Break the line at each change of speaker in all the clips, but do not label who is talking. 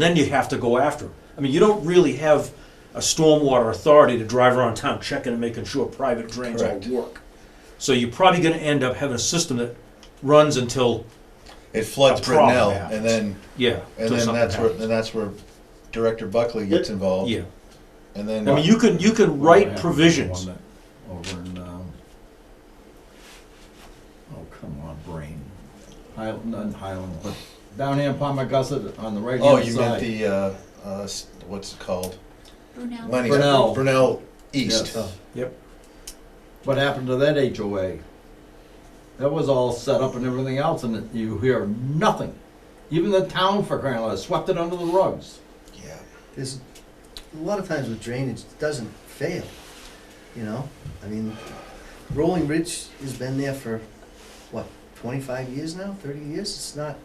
Then you have to go after them. I mean, you don't really have a stormwater authority to drive around town checking and making sure private drains all
Correct.
work. So you're probably gonna end up having a system that runs until,
It floods
A problem
Brittenell,
happens.
and then
yeah,
and
till
then
something
that's where
happens.
then that's where Director Buckley gets involved.
Yeah,
And then
I mean, you can, you can write provisions.
One that- Over in, um, oh, come on, brain. Highland, not Highland, but down here in Palmagussit on the right
oh,
hand
you meant
side.
the uh, uh, s- what's it called?
Brunel.
Lenny
Brunel.
Brunel East.
Yes.
Yep.
What happened to that HOA? That was all set up and everything else and you hear nothing. Even the town for crying out loud swept it under the rugs.
Yeah.
There's, a lot of times with drainage, it doesn't fail, you know? I mean, Rolling Ridge has been there for, what, twenty-five years now, thirty years? It's not,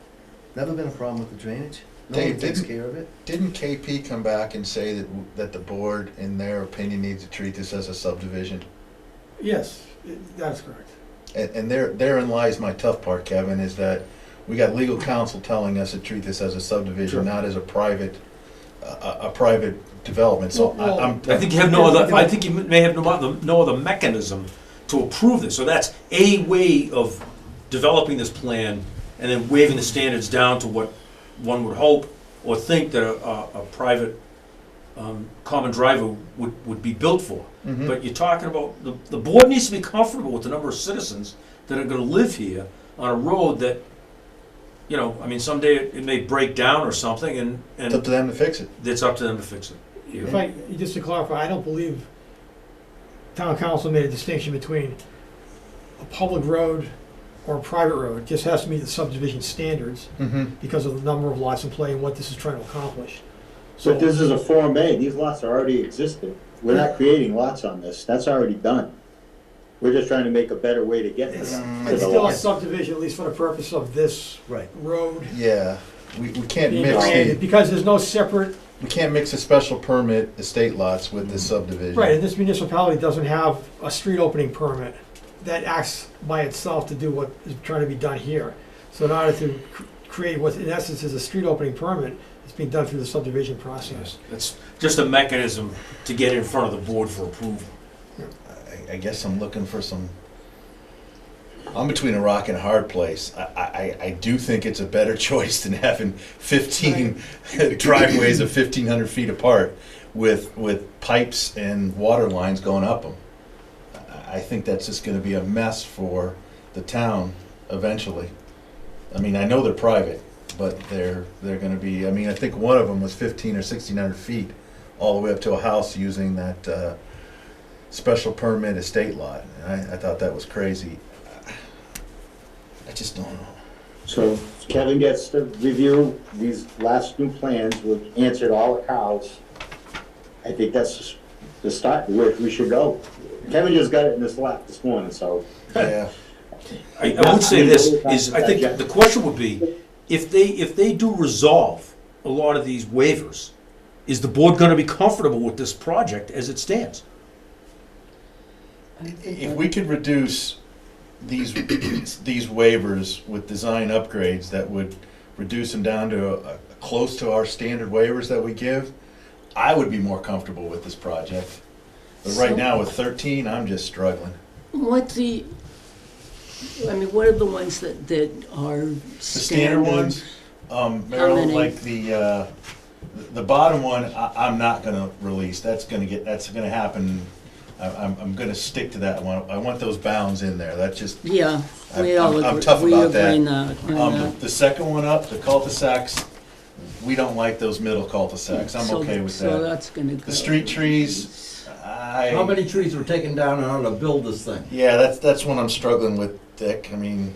never been a problem with the drainage. No one
Dave,
takes
didn't-
care of it.
Didn't KP come back and say that w- that the board, in their opinion, needs to treat this as a subdivision?
Yes, it- that's correct.
And, and there, therein lies my tough part, Kevin, is that we got legal counsel telling us to treat this as a subdivision,
Sure.
not as a private, a, a- a private development. So
Well,
I, I'm.
Um, I think you have no other, I think you may have no other, no other mechanism to approve this, so that's a way of developing this plan and then waiving the standards down to what one would hope or think that a, a, a private, um, common driver would, would be built for.
Mhm.
But you're talking about, the, the board needs to be comfortable with the number of citizens that are gonna live here on a road that, you know, I mean, someday it it may break down or something and,
It's up
and
to them to fix it.
it's up to them to fix it.
If I, just to clarify, I don't believe town council made a distinction between a public road or a private road. It just has to meet the subdivision standards
Mm-hmm.
because of the number of lots in play and what this is trying to accomplish.
But
So,
this is a Form A, these lots are already existing. We're not creating lots on this, that's already done. We're just trying to make a better way to get to
It's-
the- to
it's
the
still a
lot.
subdivision, at least for the purpose of this
Right.
road
Yeah, we, we can't
being
mix
created,
the,
because there's no separate,
we can't mix the special permit estate lots with the subdivision.
Mm-hmm. right, and this municipality doesn't have a street opening permit that acts by itself to do what is trying to be done here. So in order to cr- create what in essence is a street opening permit, it's being done through the subdivision process.
It's just a mechanism to get in front of the board for approval.
I, I guess I'm looking for some. I'm between a rock and a hard place. I, I, I- I do think it's a better choice than having 15 driveways of 1,500 feet apart with with pipes and water lines going up them. I, I think that's just going to be a mess for the town eventually. I mean, I know they're private, but they're they're going to be. I mean, I think one of them was 15 or 1,600 feet all the way up to a house using that. Uh, special permit estate lot, and I, I thought that was crazy. I just don't know.
So Kevin gets to review these last new plans, we've answered all the cows. I think that's the start, where we should go. Kevin just got it in his lap this morning, so.
Yeah,
I, I would say this, is, I think the question would be, if they, if they do resolve a lot of these waivers, is the board gonna be comfortable with this project as it stands?
if we could reduce these, these waivers with design upgrades that would reduce them down to uh, close to our standard waivers that we give, I would be more comfortable with this project. But right now with thirteen, I'm just struggling.
What the, I mean, what are the ones that, that are
The standard
standard?
ones, um,
How
Maryland,
many?
like the, uh, the bottom one, I, I'm not gonna release, that's gonna get, that's gonna happen. I, I'm, I'm gonna stick to that one, I want those bounds in there, that's just,
Yeah, we
I'm-
all
I'm- I'm
agree,
tough
we
about that.
agree now.
um, the second one up, the cul-de-sacs, we don't like those middle cul-de-sacs, I'm okay with
So
that.
that's gonna go.
The street trees,
How
I,
many trees were taken down in order to build this thing?
yeah, that's, that's one I'm struggling with, Dick, I mean,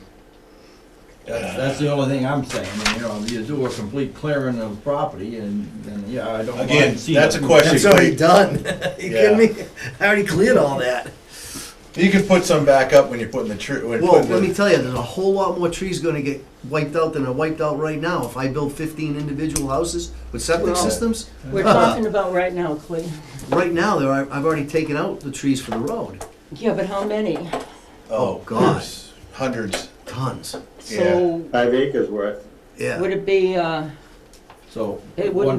That's, that's the only thing I'm saying, and, you know, you do a complete clearing of property and, and, yeah, I don't. mind
Again,
seeing
that's a
it.
question.
That's already done. You
Yeah.
kidding me? I already cleared all that.
you can put some back up when you're putting the tree, when you're
Well,
putting
let me
the.
tell you, there's a whole lot more trees gonna get wiped out than are wiped out right now. If I build fifteen individual houses with septic
Well-
systems,
We're talking about right now, Clay.
right now, there are, I've already taken out the trees for the road.
Yeah, but how many?
Oh,
God.
Hundreds.
Tons,
Yeah.
So
Five acres worth.
yeah.
would it be, uh,
So.
It
one
wouldn't